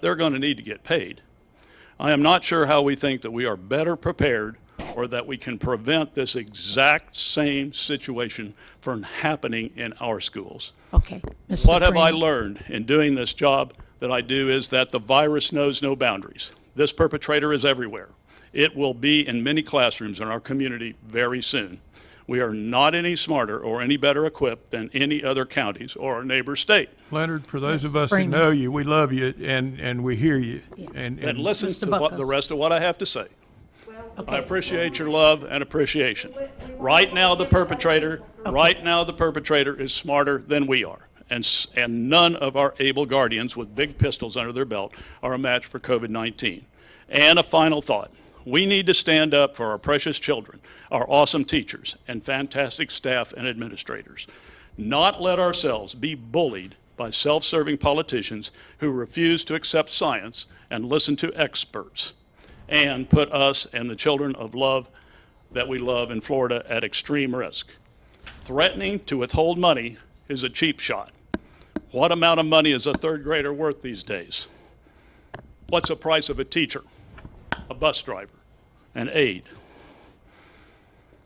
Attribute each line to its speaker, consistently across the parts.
Speaker 1: they're going to need to get paid. I am not sure how we think that we are better prepared or that we can prevent this exact same situation from happening in our schools.
Speaker 2: Okay. Mr.
Speaker 1: What have I
Speaker 2: Freeman.
Speaker 1: learned in doing this job that I do is that the virus knows no boundaries. This perpetrator is everywhere. It will be in many classrooms in our community very soon. We are not any smarter or any better equipped than any other counties or our neighbor state.
Speaker 3: Leonard, for those of us who
Speaker 2: Freeman.
Speaker 3: know you, we love you and, and we hear you. And,
Speaker 1: And
Speaker 3: and
Speaker 1: listen
Speaker 2: Mr.
Speaker 1: to what
Speaker 2: Bucko.
Speaker 1: the rest of what I have to say. I appreciate your love and appreciation. Right now, the perpetrator, right now, the perpetrator is smarter than we are. And, s- and none of our able guardians with big pistols under their belt are a match for COVID 19. And a final thought we need to stand up for our precious children, our awesome teachers, and fantastic staff and administrators. Not let ourselves be bullied by self serving politicians who refuse to accept science and listen to experts and put us and the children of love that we love in Florida at extreme risk. Threatening to withhold money is a cheap shot. What amount of money is a third grader worth these days? What's the price of a teacher, a bus driver, an aide?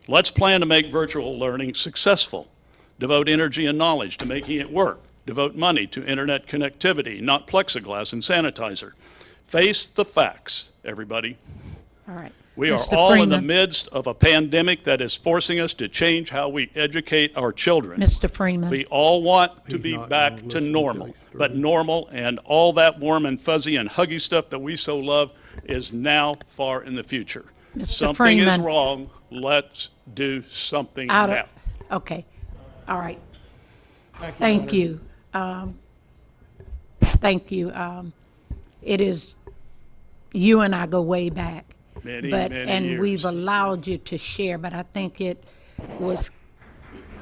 Speaker 1: Let's plan to make virtual learning successful. Devote energy and knowledge to making it work. Devote money to internet connectivity, not plexiglass and sanitizer. Face the facts, everybody.
Speaker 2: All right.
Speaker 1: We are
Speaker 2: Mr.
Speaker 1: all in the
Speaker 2: Freeman.
Speaker 1: midst of a pandemic that is forcing us to change how we educate our children.
Speaker 2: Mr. Freeman.
Speaker 1: We all want to be
Speaker 3: not
Speaker 1: back
Speaker 3: gonna
Speaker 1: to
Speaker 3: listen to
Speaker 1: normal,
Speaker 3: you,
Speaker 1: but normal and all that warm and fuzzy and huggy stuff that we so love is now far in the future.
Speaker 2: Mr.
Speaker 1: Something is
Speaker 2: Freeman.
Speaker 1: wrong. Let's do something
Speaker 2: Out
Speaker 1: now.
Speaker 2: of, okay, all right. Thank you. Um, Thank you. Um, It is, you and I go way back.
Speaker 1: Many,
Speaker 2: but-
Speaker 1: many
Speaker 2: And we've
Speaker 1: years.
Speaker 2: allowed you to share, but I think it was,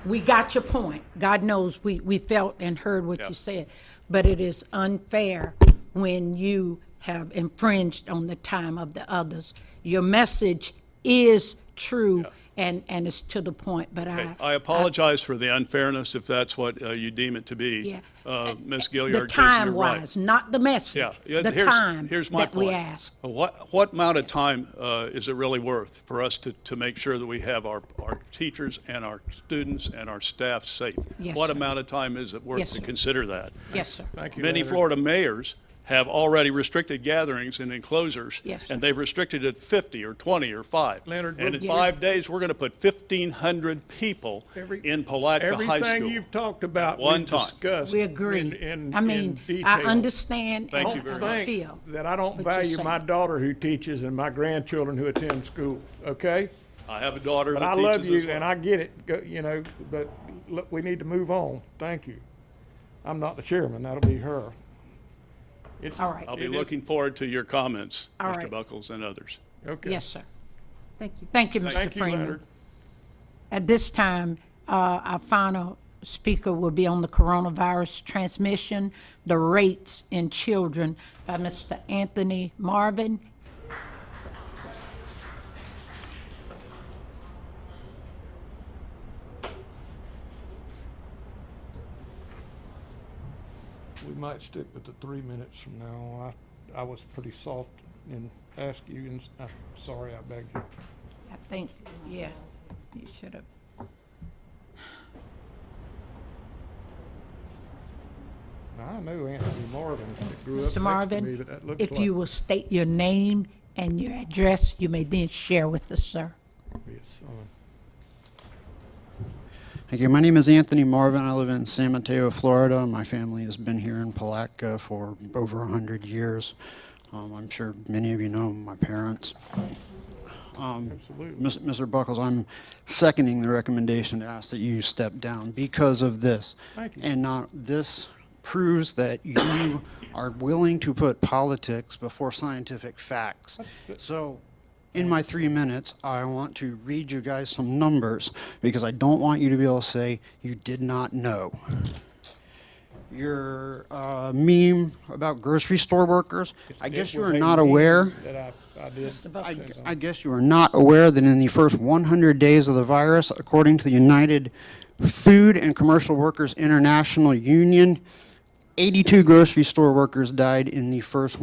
Speaker 2: we got your point. God knows, we, we felt and heard what
Speaker 1: Yeah.
Speaker 2: you said. But it is unfair when you have infringed on the time of the others. Your message is true and, and it's to the point, but I.
Speaker 1: I apologize for the unfairness if that's what uh, you deem it to be.
Speaker 2: Yeah.
Speaker 1: Uh, Ms.
Speaker 2: The
Speaker 1: Gilliard gives you
Speaker 2: time
Speaker 1: right.
Speaker 2: wise, not the
Speaker 1: Yeah.
Speaker 2: message.
Speaker 1: yeah,
Speaker 2: The
Speaker 1: here's-
Speaker 2: time
Speaker 1: here's my
Speaker 2: that we
Speaker 1: point. Uh,
Speaker 2: ask.
Speaker 1: What, what amount of time uh, is it really worth for us to, to make sure that we have our, our teachers and our students and our staff safe?
Speaker 2: Yes,
Speaker 1: What
Speaker 2: sir.
Speaker 1: amount of time is it
Speaker 2: Yes,
Speaker 1: worth to
Speaker 2: sir.
Speaker 1: consider that?
Speaker 2: Yes, sir.
Speaker 3: Thank you,
Speaker 1: Many
Speaker 3: Leonard.
Speaker 1: Florida mayors have already restricted gatherings in enclosures.
Speaker 2: Yes, sir.
Speaker 1: And they've restricted it 50 or 20 or 5.
Speaker 3: Leonard,
Speaker 1: And
Speaker 3: we're-
Speaker 1: in five days, we're going to put 1,500 people
Speaker 3: Every-
Speaker 1: in Palatka High
Speaker 3: Everything
Speaker 1: School.
Speaker 3: you've talked about,
Speaker 1: One
Speaker 3: we've
Speaker 1: time.
Speaker 3: discussed.
Speaker 2: We agree.
Speaker 3: in- in-
Speaker 2: I
Speaker 3: in
Speaker 2: mean, I
Speaker 3: detail.
Speaker 2: understand
Speaker 1: Thank
Speaker 2: and
Speaker 1: you very
Speaker 3: Don't
Speaker 2: I
Speaker 1: much.
Speaker 3: think
Speaker 2: feel.
Speaker 3: That I
Speaker 2: what
Speaker 3: don't
Speaker 2: you're
Speaker 3: value my
Speaker 2: saying.
Speaker 3: daughter who teaches and my grandchildren who attend school, okay?
Speaker 1: I have a daughter
Speaker 3: But
Speaker 1: that
Speaker 3: I
Speaker 1: teaches
Speaker 3: love
Speaker 1: as
Speaker 3: you
Speaker 1: well.
Speaker 3: and I get it, go- you know, but look, we need to move on. Thank you. I'm not the chairman, that'll be her. It's-
Speaker 2: All right.
Speaker 1: I'll be
Speaker 3: it is-
Speaker 1: looking forward to your comments,
Speaker 2: All
Speaker 1: Mr.
Speaker 2: right.
Speaker 1: Buckles and others.
Speaker 3: Okay.
Speaker 2: Yes, sir.
Speaker 4: Thank you.
Speaker 2: Thank you, Mr.
Speaker 3: Thank you,
Speaker 2: Freeman.
Speaker 3: Leonard.
Speaker 2: At this time, uh, our final speaker will be on the coronavirus transmission, the rates in children by Mr. Anthony Marvin.
Speaker 3: We might stick with the three minutes from now. on. I, I was pretty soft and asked you, and s- I'm sorry, I begged you.
Speaker 2: I think, yeah, you should have.
Speaker 3: Now, I know Anthony Marvin that grew
Speaker 2: Mr.
Speaker 3: up next to me,
Speaker 2: Marvin,
Speaker 3: but that looks
Speaker 2: if
Speaker 3: like.
Speaker 2: you will state your name and your address, you may then share with us, sir.
Speaker 3: his son.
Speaker 5: Thank you. My name is Anthony Marvin. I live in San Mateo, Florida. My family has been here in Palatka for over 100 years. Um, I'm sure many of you know my parents.
Speaker 3: Absolutely.
Speaker 5: Mis- Mr. Buckles, I'm seconding the recommendation to ask that you step down because of this.
Speaker 3: Thank you.
Speaker 5: And not, this proves that you are willing to put politics before scientific facts. So, in my three minutes, I want to read you guys some numbers because I don't want you to be able to say you did not know your uh, meme about grocery store workers. I guess
Speaker 3: It
Speaker 5: you
Speaker 3: was
Speaker 5: are
Speaker 3: a
Speaker 5: not
Speaker 3: meeting
Speaker 5: aware.
Speaker 3: That I, I did.
Speaker 5: I, I guess you are not aware that in the first 100 days of the virus, according to the United Food and Commercial Workers International Union, 82 grocery store workers died in the first